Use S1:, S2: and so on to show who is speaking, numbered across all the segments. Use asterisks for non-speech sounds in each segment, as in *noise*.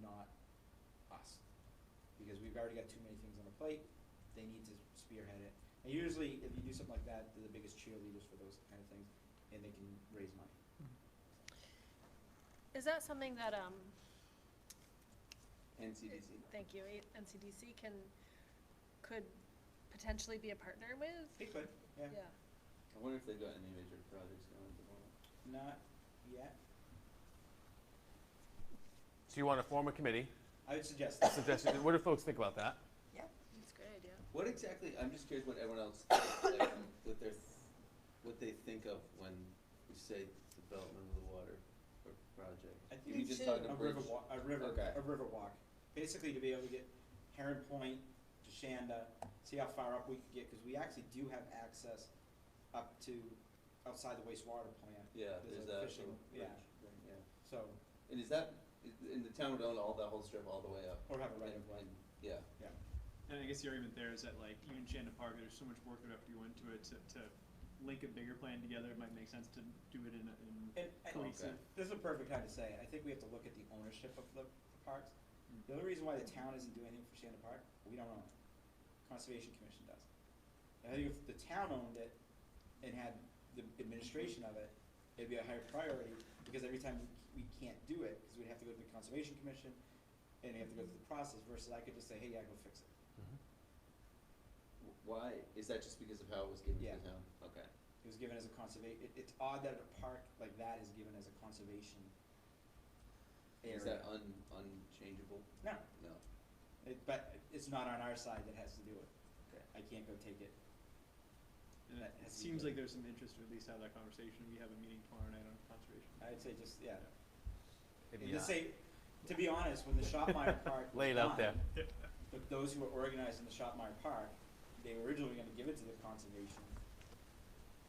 S1: not us. Because we've already got too many things on the plate, they need to spearhead it. And usually, if you do something like that, they're the biggest cheerleaders for those kind of things, and they can raise money.
S2: Is that something that, um,
S1: NCDC.
S2: thank you, eh, NCDC can, could potentially be a partner with?
S1: They could, yeah.
S2: Yeah.
S3: I wonder if they've got any major projects going at the moment.
S1: Not yet.
S4: So you want to form a committee?
S1: I would suggest
S4: I
S1: that.
S4: suggest
S1: *laughs*
S4: you- What do folks think about that?
S2: That's a great idea.
S3: What exactly, I'm just curious what everyone *coughs* else, like, um, what their, what they think of when we say development of the water or project.
S1: I think
S3: You
S1: it's
S3: just talked
S1: a
S3: about
S1: river
S3: bridge.
S1: walk, a river,
S3: Okay.
S1: a river walk. Basically to be able to get Heron Point to Shanda, see how far up we can get, cause we actually do have access up to outside the wastewater plant,
S3: Yeah,
S1: There's
S3: there's
S1: a
S3: that
S1: fishing-
S3: little bridge
S1: yeah.
S3: thing, yeah.
S1: so,
S3: And is that, i- in the town would own all that whole strip all the way up?
S1: or have a right of way.
S3: And- and- Yeah,
S5: And I guess the argument there is that like even Shanda Park, there's so much work that would have to go into it to, to link a bigger plan together. It might make sense to do it in, a- in
S1: And, and
S5: cohesive.
S1: this is a perfect time to say it. I think we have to look at the ownership of the parks.
S3: Mm.
S1: The only reason why the town isn't doing anything for Shanda Park, we don't own it. Conservation Commission does. I think if the town owned it and had the administration of it, it'd be a higher priority, because every time we, we can't do it, because we'd have to go to the Conservation Commission, and you have to go through the process, versus I could just say, hey, yeah, go fix it.
S3: W- why, is that just because of how it was given to
S1: Yeah.
S3: the town? Okay,
S1: It was given as a conserva- it, it's odd that a park like that is given as a conservation area.
S3: is that un, unchangeable?
S1: No,
S3: No,
S1: It, but it's not on our side that has to do it.
S3: okay.
S1: I can't go take it.
S5: And
S1: That has to
S5: it
S1: be
S5: seems
S1: good.
S5: like there's some interest to at least have that conversation. We have a meeting tomorrow night on conservation.
S1: I'd say just, yeah.
S4: Maybe
S1: And the
S4: not.
S1: same- to be honest, when the Shopmeyer Park. was
S4: *laughs* Lay it out there.
S1: done, The, those who were organizing the Shopmeyer Park, they were originally gonna give it to the conservation.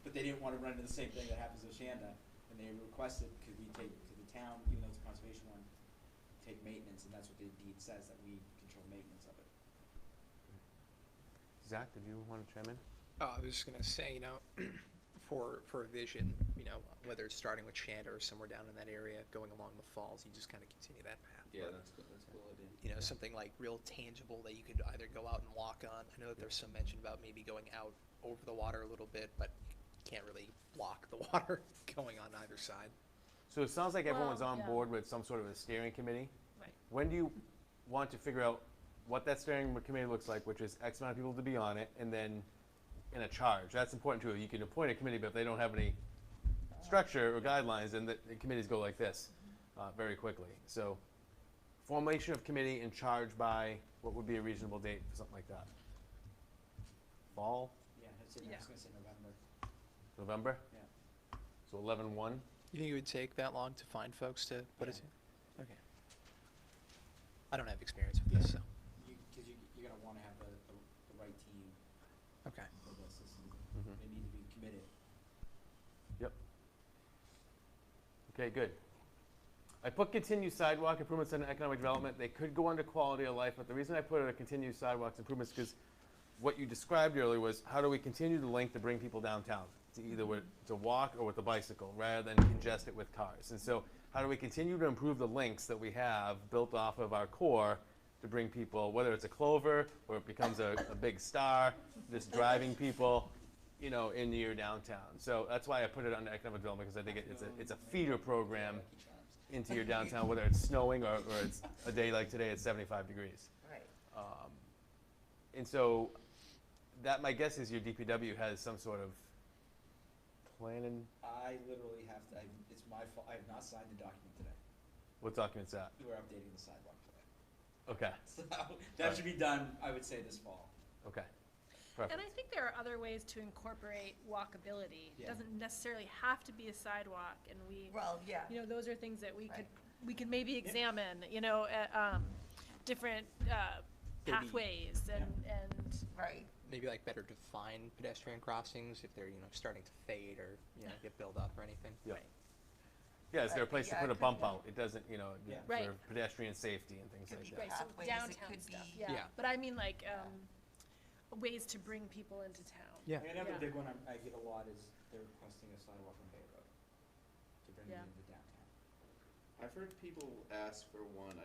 S1: But they didn't wanna run into the same thing that happens with Shanda, and they requested, could we take, could the town, even though it's a conservation one, take maintenance, and that's what the deed says, that we control maintenance of it.
S4: Zach, did you want to chime in?
S6: Uh, I was just gonna say, you know, *clears throat* for, for a vision, you know, whether it's starting with Chanda or somewhere down in that area, going along the falls, you just kind of continue that path.
S3: Yeah,
S6: but,
S3: that's, cool- that's a cool idea.
S6: You know, something like real tangible that you could either go out and walk on. I know that there's some mention about maybe going out over the water a little bit, but you can't really block the *laughs* water going on either side.
S4: So it sounds like everyone's
S2: Well,
S4: on
S2: yeah.
S4: board with some sort of a steering committee.
S2: Right.
S4: When do you want to figure out what that steering committee looks like, which is X amount of people to be on it, and then in a charge? That's important too. You can appoint a committee, but if they don't have any structure or guidelines, then the, the committees go like this uh, very quickly. So formation of committee and charge by what would be a reasonable date for something like that? Fall,
S1: Yeah, I'd say, I was gonna say November,
S4: November?
S1: Yeah.
S4: So 11 1.
S6: You think it would take that long to find folks to put it to? Okay. I don't have experience with this, so,
S1: you, cause you, you're gonna wanna have the, the, the right team
S6: okay.
S1: for this, This is-
S4: Mm-hmm.
S1: they need to be committed.
S4: Okay, good. I put continued sidewalk improvements and economic development. They could go under quality of life, but the reason I put it a continued sidewalks improvements because what you described earlier was how do we continue the link to bring people downtown? To either with, to walk or with a bicycle rather than congest it with cars. And so how do we continue to improve the links that we have built off of our core to bring people, whether it's a clover or it becomes a, a big star, just driving people, you know, in your downtown. So that's why I put it under economic development because I think it, it's a it's a feeder program
S1: Lucky Charms.
S4: into your downtown, whether it's snowing or, or it's a day like today, it's 75 degrees.
S7: Right.
S4: Um, and so that, my guess is your DPW has some sort of plan and,
S1: I literally have to, I, it's my fault, I have not signed the document today.
S4: what document's that?
S1: We're updating the sidewalk today. *laughs*
S4: Okay,
S1: So that should be done, I would say, this fall.
S4: okay.
S2: And
S4: Perfect.
S2: I think there are other ways to incorporate walkability. It
S1: Yeah.
S2: doesn't necessarily have to be a sidewalk and we,
S7: Well, yeah.
S2: you know, those are things that we could,
S7: Right.
S2: we could maybe examine, you know, uh, um, different, uh,
S6: Maybe-
S2: pathways and, and
S7: Right.
S6: maybe like better define pedestrian crossings if they're you know starting to fade or you know get built up or anything.
S4: Yeah. Yeah, is there a place to
S7: Uh, Yeah, it
S4: put a
S7: could
S4: bump
S7: be.
S4: out? It doesn't, you know,
S1: Yeah.
S4: for
S2: Right.
S4: pedestrian safety and things
S7: Could
S4: like
S7: be
S4: that.
S2: Right, so
S7: pathways, it
S2: downtown
S7: could
S2: stuff,
S7: be-
S2: yeah,
S6: Yeah.
S2: but I mean like, um, ways to bring people into town.
S6: Yeah.
S1: And Another
S2: Yeah.
S1: big one I'm- I get a lot is they're requesting a sidewalk on Bay Road to bring it
S2: Yeah.
S1: into downtown.
S3: I've heard people ask for one, I